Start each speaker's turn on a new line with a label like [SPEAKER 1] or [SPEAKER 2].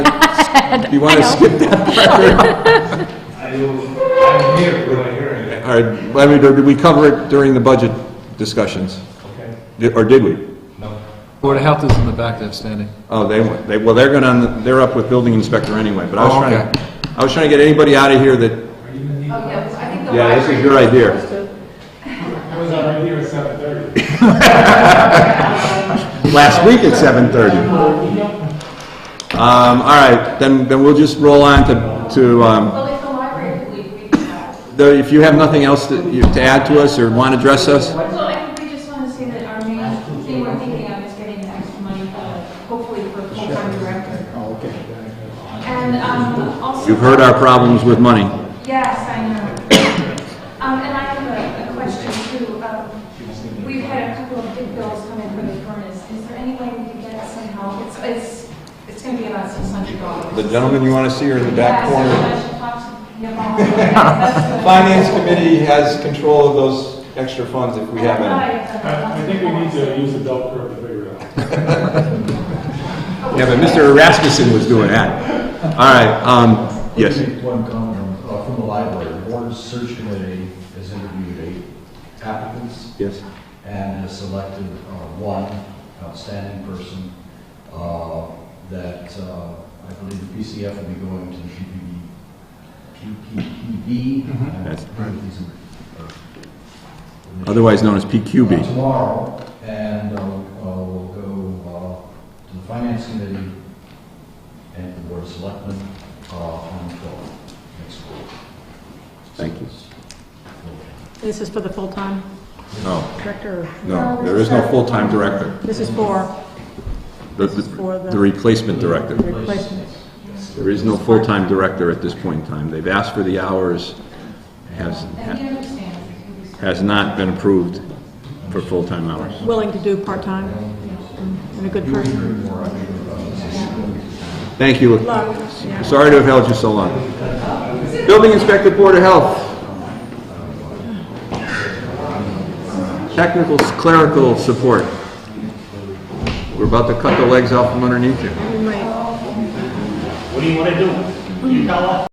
[SPEAKER 1] You want to skip that?
[SPEAKER 2] I will, I'm here for my hearing.
[SPEAKER 1] All right, I mean, did we cover it during the budget discussions?
[SPEAKER 2] Okay.
[SPEAKER 1] Did- Or did we?
[SPEAKER 2] No.
[SPEAKER 3] Board of Health is in the back there standing.
[SPEAKER 1] Oh, they, went- they, well, they're gonna, they're up with building inspector anyway, but I was
[SPEAKER 3] Oh,
[SPEAKER 1] trying, to- I was trying to get anybody out of here that,
[SPEAKER 2] Are you gonna need?
[SPEAKER 4] Oh, yeah, I think the
[SPEAKER 1] Yeah, this is
[SPEAKER 4] library
[SPEAKER 1] your
[SPEAKER 4] was
[SPEAKER 1] idea.
[SPEAKER 4] supposed to-
[SPEAKER 2] I was already here at seven thirty.
[SPEAKER 1] last week at seven thirty. Um, all right, then, then we'll just roll on to, to, um,
[SPEAKER 4] Well, if the library could leave, we could have.
[SPEAKER 1] though, if you have nothing else that you, to add to us or want to address us?
[SPEAKER 4] Well, I think we just want to say that our main thing we're thinking of is getting the extra money, uh, hopefully for full-time director. Oh, okay. And um, also...
[SPEAKER 1] You've heard our problems with money.
[SPEAKER 4] Yes, I know. Um, And I have a- a question too. Um, We've had a couple of big bills come in for the furnace. Is there any way we could get somehow? It's, it's, it's going to be about $600.
[SPEAKER 1] The gentleman you want to see are in the back
[SPEAKER 4] Yes,
[SPEAKER 1] corner.
[SPEAKER 4] I should talk to him about it. Yes, that's good.
[SPEAKER 1] Finance committee has control of those extra funds if we have any.
[SPEAKER 2] I, I think we need to use the bell curve to figure it out.
[SPEAKER 1] Yeah, but Mr. Rasmussen was doing that. All right, um, yes.
[SPEAKER 5] Make One comment uh, from the library, the board search committee has interviewed eight applicants
[SPEAKER 1] Yes.
[SPEAKER 5] and has selected uh, one outstanding person uh, that uh, I believe the PCF will be going to the PPP, PPPB.
[SPEAKER 1] That's-
[SPEAKER 5] I believe uh, these are- are-
[SPEAKER 1] Mm-hmm. Otherwise known as
[SPEAKER 5] uh,
[SPEAKER 1] PQB.
[SPEAKER 5] Tomorrow, and uh, uh, we'll go uh, to the Finance Committee and the Board of Selectmen uh, on the 12th next week.
[SPEAKER 1] Thank you.
[SPEAKER 6] This is for the full-time
[SPEAKER 1] No,
[SPEAKER 6] director.
[SPEAKER 1] no, there is no full-time director.
[SPEAKER 6] This is for
[SPEAKER 1] The, the the replacement director.
[SPEAKER 6] the replacement.
[SPEAKER 1] There is no full-time director at this point in time. They've asked for the hours, has,
[SPEAKER 4] And he understands. it can be so-
[SPEAKER 1] has not been approved for full-time hours.
[SPEAKER 6] Willing to do part-time and a good person.
[SPEAKER 1] Thank you.
[SPEAKER 6] Luck, yeah.
[SPEAKER 1] Sorry to have held you so long. Building Inspector Board of Health. Technical clerical support. We're about to cut the legs out from underneath you.
[SPEAKER 6] We might-
[SPEAKER 7] What do you want to do? You tell us.